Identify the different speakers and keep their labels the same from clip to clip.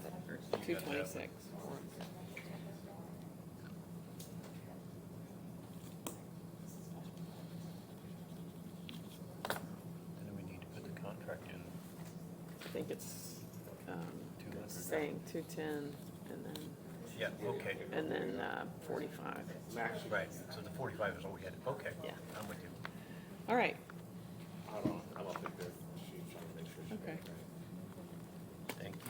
Speaker 1: two
Speaker 2: got that one.
Speaker 1: twenty-six.
Speaker 2: And then we need to put the contract in.
Speaker 1: I think it's, um, it's
Speaker 2: 200.
Speaker 1: saying two-ten and then,
Speaker 2: Yeah, okay,
Speaker 1: and then, uh, forty-five.
Speaker 2: right, so the forty-five is all we had, okay.
Speaker 1: Yeah.
Speaker 2: I'm with you.
Speaker 1: All right,
Speaker 3: Hold on, I'm up at the, she's trying to make sure she's
Speaker 1: Okay.
Speaker 3: right.
Speaker 2: Thank you.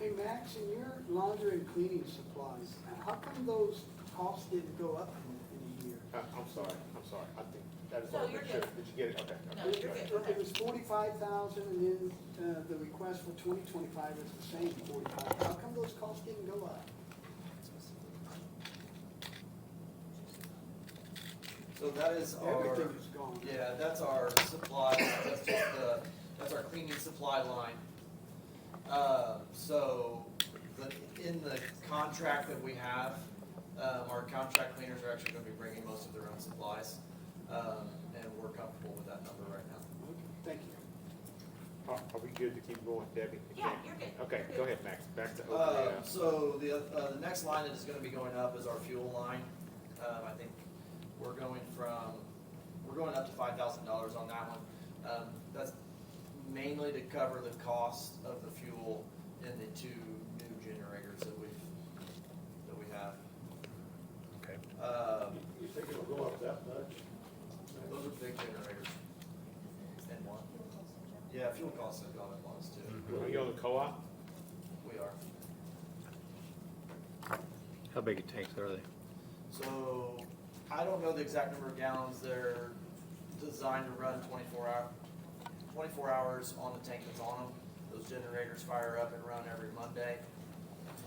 Speaker 4: Hey Max, in your laundry and cleaning supplies, how come those costs didn't go up in, in a year?
Speaker 3: Uh, I'm sorry, I'm sorry, I think, that is
Speaker 5: No,
Speaker 3: all
Speaker 5: you're
Speaker 3: picture,
Speaker 5: good.
Speaker 3: did you get it? Okay.
Speaker 5: No,
Speaker 3: okay,
Speaker 5: you're
Speaker 3: okay.
Speaker 5: good.
Speaker 4: Look, It was forty-five thousand and then, uh, the request for twenty twenty-five is the same forty-five. How come those costs didn't go up?
Speaker 6: So that is our,
Speaker 4: Everything is gone.
Speaker 6: yeah, that's our supply, that's just the, that's our cleaning supply line. Uh, so, the, in the contract that we have, um, our contract cleaners are actually gonna be bringing most of their own supplies. Um, and we're comfortable with that number right now.
Speaker 4: Okay, Thank you.
Speaker 3: Are, are we good to keep going, Debbie?
Speaker 5: Yeah, you're good.
Speaker 3: Okay, go ahead, Max, back to open
Speaker 6: Uh, so the, uh, the next line that is gonna be going up is our fuel line. Um, I think we're going from, we're going up to five thousand dollars on that one. Um, that's mainly to cover the cost of the fuel in the two new generators that we've, that we have.
Speaker 2: Okay.
Speaker 6: Um,
Speaker 7: You think it'll go up that much?
Speaker 6: those are big generators. And one. Yeah, fuel costs have gone up once too.
Speaker 3: Are you on the co-op?
Speaker 6: We are.
Speaker 2: How big a tanks are they?
Speaker 6: So, I don't know the exact number of gallons, they're designed to run twenty-four hour, twenty-four hours on the tank that's on them. Those generators fire up and run every Monday.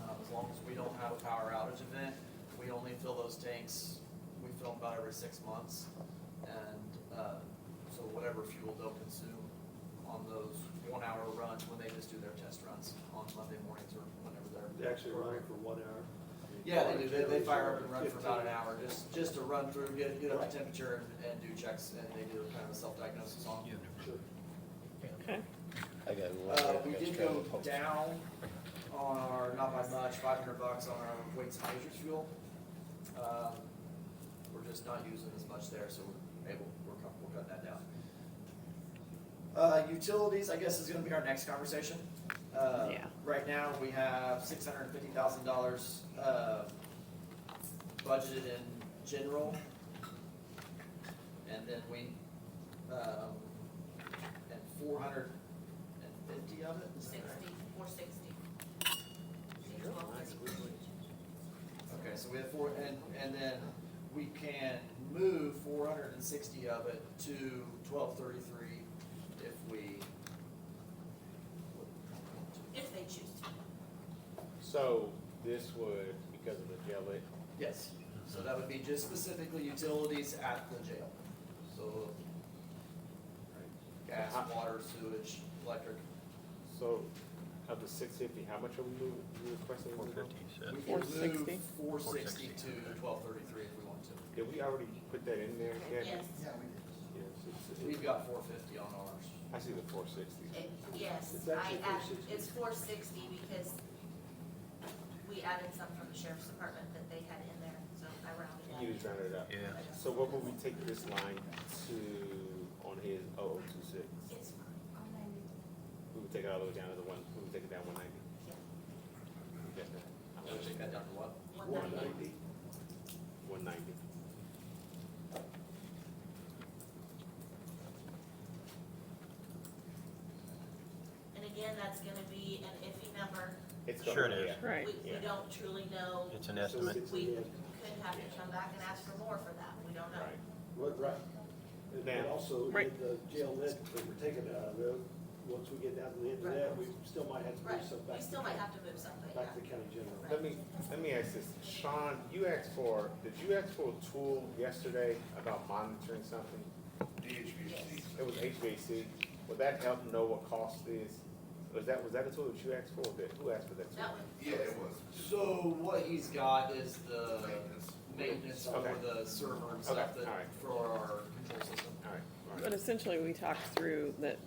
Speaker 6: Um, as long as we don't have a power outage event, we only fill those tanks, we fill them about every six months. And, uh, so whatever fuel they'll consume on those one-hour runs, when they just do their test runs on Monday mornings or whenever they're.
Speaker 7: They actually running for one hour?
Speaker 6: Yeah, they do, they, they fire up and run for about an hour, just, just to run through, get, get up to temperature and, and do checks, and they do kind of a self-diagnosis on.
Speaker 2: Yeah.
Speaker 7: Sure.
Speaker 1: okay.
Speaker 2: I got
Speaker 6: Uh, we did go down on our, not by much, five hundred bucks on our weights and measures fuel. Um, we're just not using as much there, so we're able, we're comfortable cutting that down. Uh, utilities, I guess, is gonna be our next conversation. Uh,
Speaker 1: Yeah.
Speaker 6: Right now, we have six hundred and fifty thousand dollars, uh, budgeted in general. And then we, um, and four hundred and fifty of it? is that right?
Speaker 5: Sixty, four sixty.
Speaker 6: Okay, so we have four, and, and then we can move four hundred and sixty of it to twelve thirty-three if we.
Speaker 5: If they choose to.
Speaker 3: So this would, because of the jail, it,
Speaker 6: Yes, so that would be just specifically utilities at the jail, so. Gas, water, sewage, electric,
Speaker 3: so of the six fifty, how much are we moving, you requesting? to
Speaker 2: Four
Speaker 3: move?
Speaker 2: fifty,
Speaker 1: 460?
Speaker 2: so
Speaker 6: we can move four sixty
Speaker 2: 460.
Speaker 6: to twelve thirty-three if we want to.
Speaker 3: Did we already put that in there, Debbie?
Speaker 5: Yes,
Speaker 3: Yes, it's- it-
Speaker 6: We've got four fifty on ours.
Speaker 3: I see the four sixty.
Speaker 5: It- yes,
Speaker 7: It's
Speaker 5: I
Speaker 7: actually 460.
Speaker 5: add, it's four sixty because we added some from the sheriff's department that they had in there, so I rounded
Speaker 3: You just rounded it up.
Speaker 2: yeah.
Speaker 5: up.
Speaker 3: So what would we take this line to on his 0026?
Speaker 5: It's fine, I'll manage it.
Speaker 3: We would take it all the way down to the one, we would take it down one ninety. Yes, ma'am. I'm
Speaker 6: I'll
Speaker 3: gonna
Speaker 6: take
Speaker 3: take
Speaker 6: that down to what?
Speaker 5: Yeah, one ninety.
Speaker 3: One ninety.
Speaker 5: And again, that's gonna be an iffy number.
Speaker 3: It's gonna-
Speaker 2: Sure it is.
Speaker 3: yeah.
Speaker 1: Right,
Speaker 5: We, we
Speaker 3: Yeah.
Speaker 5: don't truly know.
Speaker 2: It's an estimate.
Speaker 5: We could have to come back and ask for more for that, we don't know.
Speaker 3: Right.
Speaker 7: Right, right. And then
Speaker 3: Now-
Speaker 7: also,
Speaker 1: Right.
Speaker 7: with the jail lid, that we're taking out of it, once we get down to the end of that, we still might have to
Speaker 5: Right,
Speaker 7: do some back.
Speaker 5: we still might have to move something, yeah.
Speaker 7: Back to county general.
Speaker 3: Let me, let me ask this. Sean, you asked for, did you ask for a tool yesterday about monitoring something?
Speaker 5: Yes.
Speaker 3: It was HVAC. Would that help know what cost is? Was that, was that a tool that you asked for? That- Who asked for that tool?
Speaker 5: That one,
Speaker 8: Yeah, it was.
Speaker 6: So what he's got is the maintenance for
Speaker 3: Okay.
Speaker 6: the server and stuff
Speaker 3: Okay,
Speaker 6: that,
Speaker 3: alright.
Speaker 6: for our control system.
Speaker 3: All right, all right.
Speaker 1: But essentially, we talked through that